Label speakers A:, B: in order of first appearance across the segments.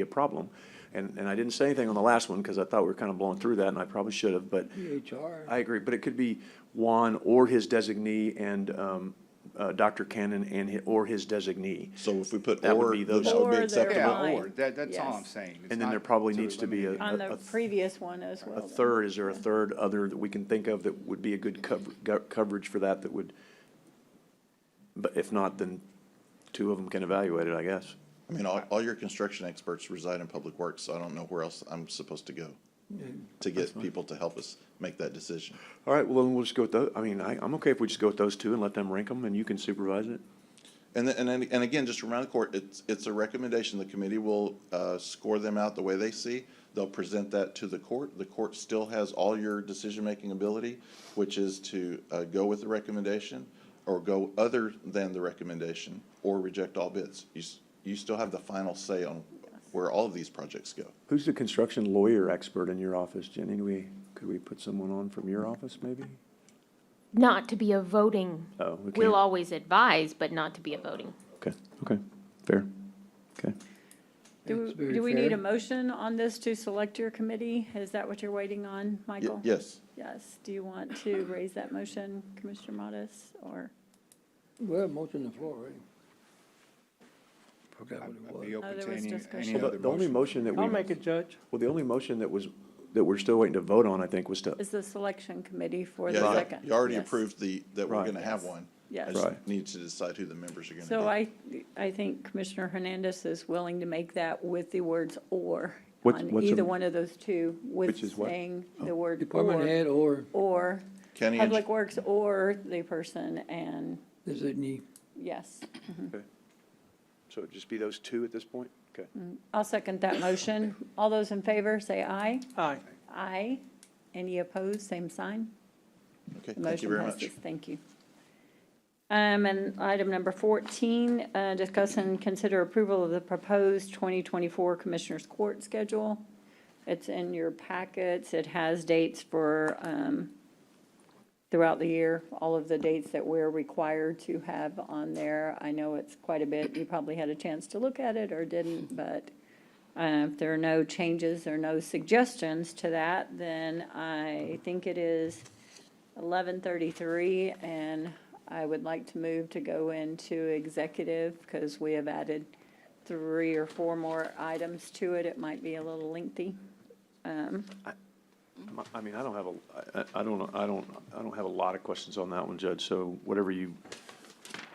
A: a problem. And, and I didn't say anything on the last one because I thought we were kind of blowing through that and I probably should have, but
B: EHR.
A: I agree, but it could be Juan or his designee and, um, uh, Dr. Cannon and, hi- or his designee.
C: So if we put
A: That would
C: or,
A: be
C: then
A: those-
C: that would be
D: Or they're
C: acceptable.
D: fine.
B: Yeah, or, that, that's all I'm
D: Yes.
B: saying. It's
A: And then
B: not
A: there probably
B: to
A: needs to be a,
B: eliminate
D: on
A: a-
D: the
A: a
D: previous one as well.
A: a
D: then.
A: third, is there a third other that we can think of that would be a good cov- go- coverage for that that would? But if not, then two of them can evaluate it, I guess.
C: I mean, all, all your construction experts reside in public works, so I don't know where else I'm supposed to go to get people to help us make that decision.
A: All right, well, then we'll just go with those, I mean, I, I'm okay if we just go with those two and let them rank them and you can supervise it.
C: And, then- and, then- and again, just remind the court, it's, it's a recommendation. The committee will, uh, score them out the way they see. They'll present that to the court. The court still has all your decision-making ability, which is to, uh, go with the recommendation or go other than the recommendation or reject all bids. You, s- you still have the final say on where all of these projects go.
A: Who's the construction lawyer expert in your office, Jenny? Do we, could we put someone on from your office maybe?
E: Not to be a voting,
A: Oh, we can't.
E: we'll always advise, but not to be a voting.
A: Okay, okay, fair, okay.
D: Do,
B: It's very
D: do we need
B: fair.
D: a motion on this to select your committee? Is that what you're waiting on,
C: Ye-
D: Michael?
C: Yes.
D: Yes. Do you want to raise that motion, Commissioner Modis, or?
B: We have a motion on the floor, right? Forgot
F: I'd
B: what
F: be
B: it was.
D: Oh,
F: open
D: there
F: to
D: was
F: any,
D: discussion.
F: any
A: Well,
F: other
A: the, the only motion
F: motion.
A: that we,
B: I'll
A: well,
B: make it, Judge.
A: the only motion that was, that we're still waiting to vote on, I think, was to,
D: Is the selection committee for the
C: Yeah, you-
D: second?
C: You already
D: Yes.
C: approved the, that we're
A: Right.
C: gonna have one.
D: Yes.
C: I just
A: Right.
C: need to decide who the members are gonna be.
D: So I, I think Commissioner Hernandez is willing to make that with the words or
A: What-
D: on
A: what's a-
D: either one of those two,
A: Which
D: with
A: is what? Oh.
D: saying the word
B: Department
D: or,
B: head or
D: or
C: County eng-
D: Public Works or the person, and
B: designee.
D: yes.
A: so it'd just be those two at this point? Okay.
D: I'll second that motion. All those in favor, say aye.
B: Aye.
D: Aye. Any opposed, same sign.
C: Okay,
D: The
C: thank you
D: motion
C: very
D: passes.
C: much.
D: Thank you. Um, and item number fourteen, uh, discuss and consider approval of the proposed twenty twenty-four Commissioners Court schedule. It's in your packets. It has dates for, um, throughout the year, all of the dates that we're required to have on there. I know it's quite a bit. You probably had a chance to look at it or didn't, but, uh, if there are no changes or no suggestions to that, then I think it is eleven thirty-three, and I would like to move to go into executive, because we have added three or four more items to it, it might be a little lengthy.
A: I mean, I don't have a, I- I, I don't, I don't, I don't have a lot of questions on that one, Judge, so whatever you.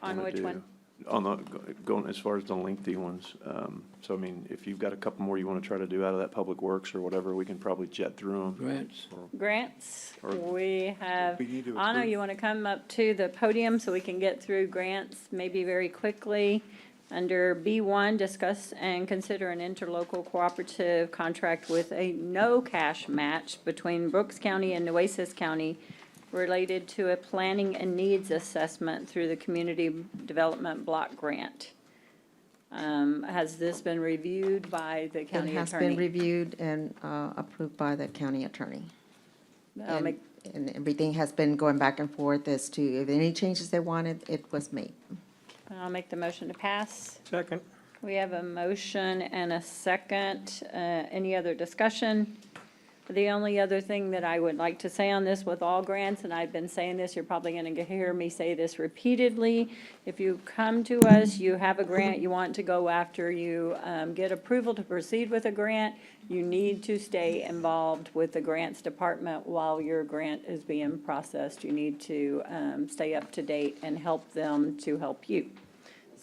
D: On
A: wanna
D: which
A: do.
D: one?
A: On the, going as far as the lengthy ones, um, so I mean, if you've got a couple more you wanna try to do out of that Public Works or whatever, we can probably jet through them.
B: Grants.
D: Grants,
A: Or-
D: we have,
F: We need to
D: Anna,
F: approve.
D: you want to come up to the podium so we can get through grants maybe very quickly? Under B one, discuss and consider an interlocal cooperative contract with a no-cash match between Brooks County and Nueces County related to a planning and needs assessment through the Community Development Block Grant. Um, has this been reviewed by the
G: It
D: county
G: has been
D: attorney?
G: reviewed and uh, approved by the county attorney.
D: I'll make-
G: And and everything has been going back and forth as to if any changes they wanted, it was made.
D: I'll make the motion to pass.
B: Second.
D: We have a motion and a second. Uh, Any other discussion? The only other thing that I would like to say on this with all grants, and I've been saying this, you're probably going to hear me say this repeatedly. If you come to us, you have a grant you want to go after, you um, get approval to proceed with a grant, you need to stay involved with the grants department while your grant is being processed. You need to um, stay up to date and help them to help you.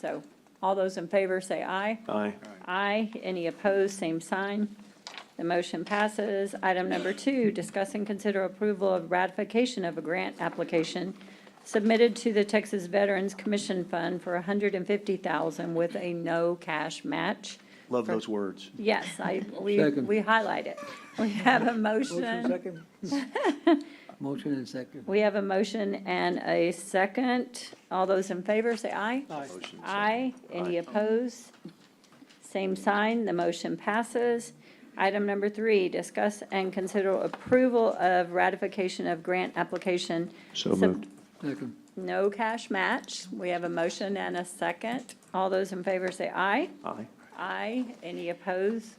D: So all those in favor say aye.
A: Aye.
D: Aye. Any opposed, same sign. The motion passes. Item number two, discuss and consider approval of ratification of a grant application submitted to the Texas Veterans Commission Fund for $150,000 with a no cash match.
A: Love those words.
D: Yes, I, we,
B: Second.
D: we highlight it. We have a
B: Motion
D: motion.
B: second. Motion and second.
D: We have a motion and a second. All those in favor, say aye.
B: Aye.
A: Motion, so-
D: Aye. Any opposed? Same sign, the motion passes. Item number three, discuss and consider approval of ratification of grant application.
A: So moved.
B: Second.
D: No cash match. We have a motion and a second. All those in favor say aye.
A: Aye.
D: Aye. Any opposed?